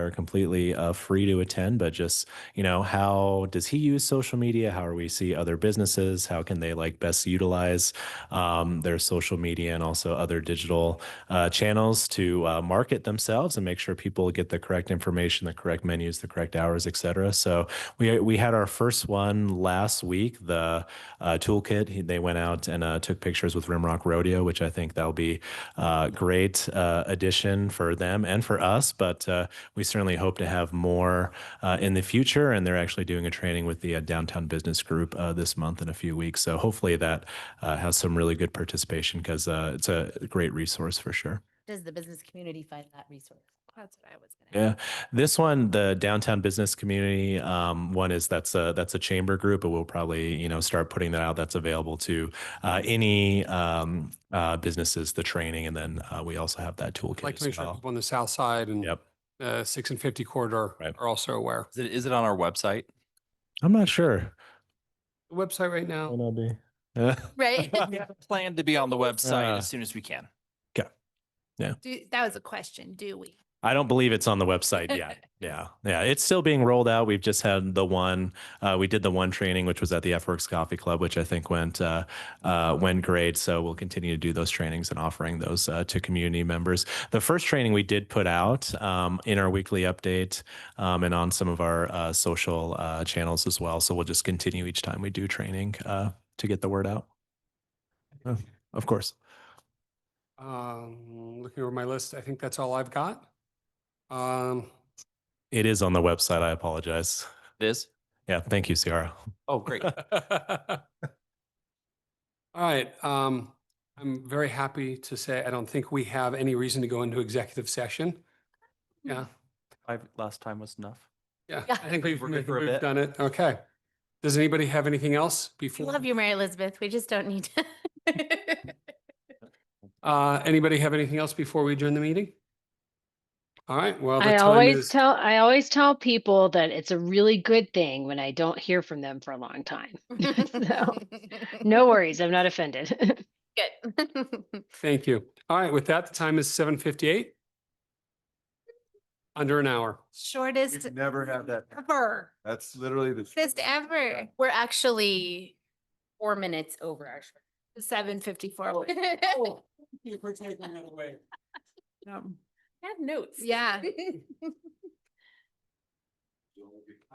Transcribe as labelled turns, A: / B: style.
A: are completely uh, free to attend, but just, you know, how does he use social media? How are we see other businesses? How can they like best utilize um, their social media and also other digital uh, channels to uh, market themselves and make sure people get the correct information, the correct menus, the correct hours, et cetera. So we, we had our first one last week, the uh, toolkit. He- They went out and uh, took pictures with Rimrock Rodeo, which I think that'll be uh, great uh, addition for them and for us. But uh, we certainly hope to have more uh, in the future. And they're actually doing a training with the uh, Downtown Business Group uh, this month in a few weeks. So hopefully that uh, has some really good participation because uh, it's a great resource for sure.
B: Does the business community find that resource?
C: That's what I was gonna.
A: Yeah, this one, the downtown business community, um, one is that's a that's a chamber group, but we'll probably you know start putting that out. That's available to uh, any um, uh, businesses. The training, and then uh, we also have that toolkit
D: Like to make
A: as
D: sure
A: well.
D: people on the south side and
A: Yep.
D: uh, six and fifty corridor
A: Right.
D: are also aware.
E: Is it, is it on our website?
A: I'm not sure.
D: The Website right now.
A: Yeah.
B: Right?
E: Plan to be on the website
A: Uh,
E: as soon as we can.
C: Do, that was a question, do we?
A: I don't believe it's on the website yet. Yeah. Yeah. It's still being rolled out. We've just had the one, uh, we did the one training, which was at the FWorks Coffee Club, which I think went, uh, uh, went great. So we'll continue to do those trainings and offering those uh, to community members. The first training we did put out um, in our weekly update um, and on some of our uh, social uh, channels as well. So we'll just continue each time we do training uh, to get the word out. Oh, of course.
D: Um, looking over my list, I think that's all I've got. Um,
A: It is on the website. I apologize.
E: It is?
A: Yeah. Thank you, Ciara.
E: Oh, great.
D: All right, um, I'm very happy to say I don't think we have any reason to go into executive session. Yeah,
E: Five, last time was enough.
D: yeah,
B: Yeah.
D: I think we've,
E: We're good
D: we've
E: for a bit.
D: done it. Okay. Does anybody have anything else
B: We
D: before?
B: Love you, Mary Elizabeth. We just don't need to.
D: Uh, anybody have anything else before we adjourn the meeting? All right, well. the
F: I
D: time
F: always
D: is-
F: tell I always tell people that it's a really good thing when I don't hear from them for a long time. So, no worries, I'm not offended.
B: Good.
D: Thank you. All right, with that, the time is seven fifty-eight. Under an hour.
C: Shortest
G: We've never had that.
C: ever,
G: That's literally the.
C: shortest ever,
B: We're actually four minutes over our.
C: seven fifty-four.
B: Oh.
D: We're taking it away. Um,
B: Have notes.
C: Yeah.